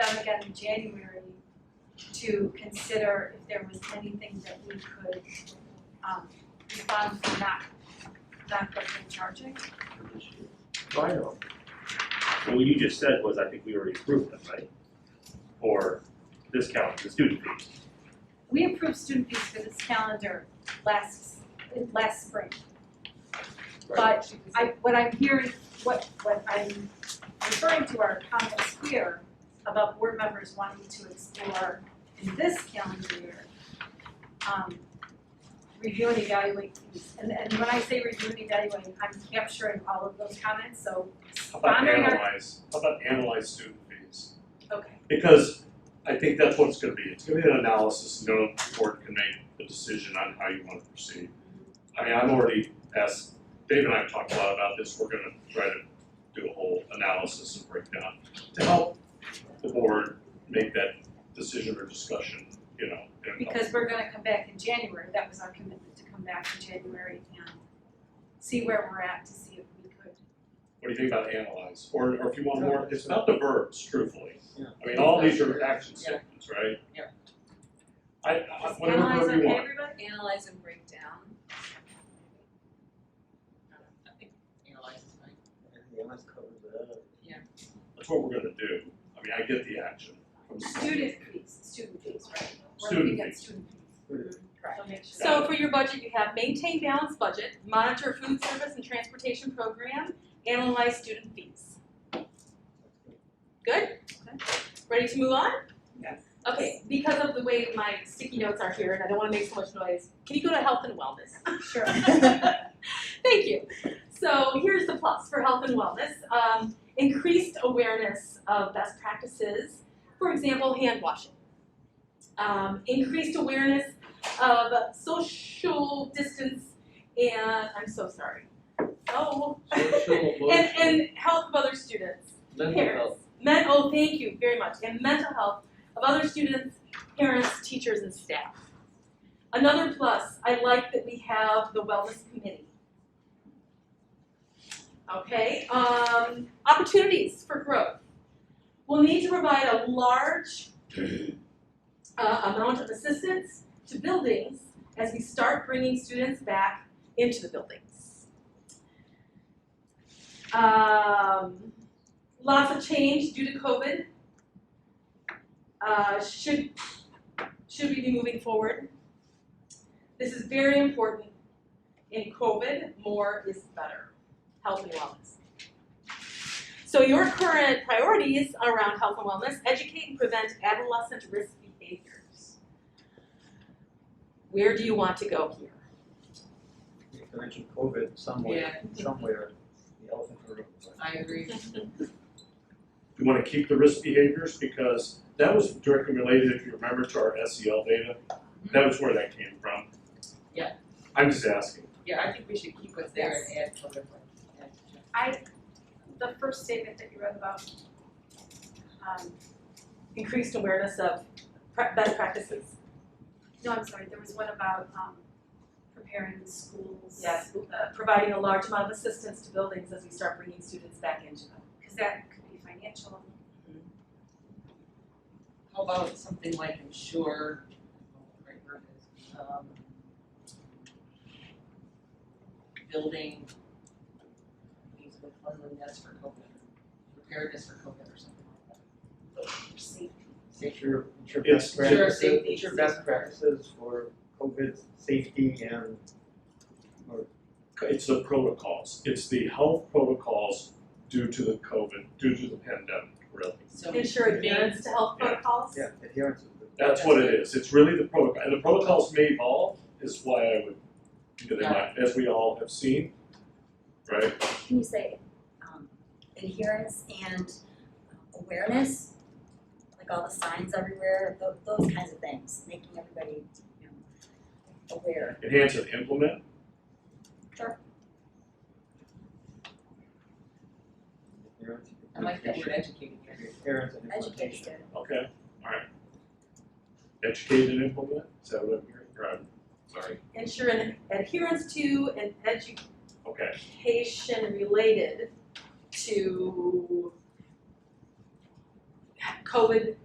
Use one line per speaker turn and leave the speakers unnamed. again in January to consider if there was anything that we could um refund for not not the full charging.
I know.
So what you just said was, I think we already approved them, right? Or discount the student fees.
We approved student fees for this calendar last last spring. But I, what I'm hearing, what, what I'm referring to are comments here about board members wanting to explore in this calendar year, um, review and evaluate fees. And, and when I say review and evaluate, I'm capturing all of those comments, so
How about
Honoring our-
analyze, how about analyze student fees?
Okay.
Because I think that's what it's gonna be, it's gonna be an analysis, and then the board can make the decision on how you wanna proceed. I mean, I've already asked, Dave and I have talked a lot about this, we're gonna try to do a whole analysis and breakdown to help the board make that decision or discussion, you know, and help
Because we're gonna come back in January, that was our commitment, to come back in January and see where we're at, to see if we could.
What do you think about analyze? Or, or if you want more, it's about the verbs, truthfully.
Yeah.
I mean, all these are action
Yeah.
statements, right?
Yeah.
I, I,
Is
whatever
analyze
verb you
okay,
want.
everybody?
Analyze and break down. I think analyze is fine.
Everything else covers it up.
That's what we're gonna do. I mean, I get the action. from the-
Student fees, student fees, right? We're
Student
looking at
fees. Mm-hmm.
student fees.
Student
So make sure.
So for your budget, you have maintain balanced budget, monitor food service and transportation program, analyze student fees. Good? Ready to move on?
Yes.
Okay, because of the way my sticky notes are here and I don't wanna make so much noise, can you go to health and wellness?
Sure.
Thank you. So here's the plus for health and wellness. Um, increased awareness of best practices, for example, hand washing. Um, increased awareness of social distance and, I'm so sorry. Oh.
Social,
And, and health of other students
mental
parents.
health,
Men- oh, thank you very much. And mental health of other students, parents, teachers, and staff. Another plus, I like that we have the wellness committee. Okay, um, opportunities for growth. We'll need to provide a large uh, amount of assistance to buildings as we start bringing students back into the buildings. Um, lots of change due to COVID. Uh, should, should we be moving forward? This is very important. In COVID, more is better, health and wellness. So your current priorities around health and wellness, educate and prevent adolescent risk behaviors. Where do you want to go here?
you mentioned COVID somewhere, somewhere, the elephant in the room.
I agree.
We wanna keep the risk behaviors because that was directly related, if you remember, to our SEL data. That was where that came from.
Yeah.
I'm just asking.
Yeah, I think we should keep what's there and add sort of like, add to-
The first statement that you read about, um,
Increased awareness of pre- best practices.
no, I'm sorry, there was one about, um, preparing the schools.
Yes, uh, providing a large amount of assistance to buildings as we start bringing students back into them.
Cause that could be financial,
How about something like ensure, I don't know what the right word is, um. Building things with cleanliness for COVID, preparedness for COVID or something like
Make sure, make sure
It's-
best
Sure,
practices,
safety.
make sure best practices for COVID safety and, or,
It's the protocols. It's the health protocols due to the COVID, due to the pandemic, really.
that. So
Ensure adherence to health
Yeah.
protocols.
yeah, adherence is the.
That's what it is, it's really the protocol, and the protocols may evolve, is why I would, you know, they might, as we all have seen, right?
Can you say um adherence and awareness? Like all the signs everywhere, tho- those kinds of things, making everybody, you know, aware.
Enhance and implement,
Adherence.
I like that word educating,
Adherence and
Educate
implementation.
students.
okay, alright. Educate and implement, is that what I'm hearing, Or I'm- sorry,
Ensure an adherence to and
okay,
education related to COVID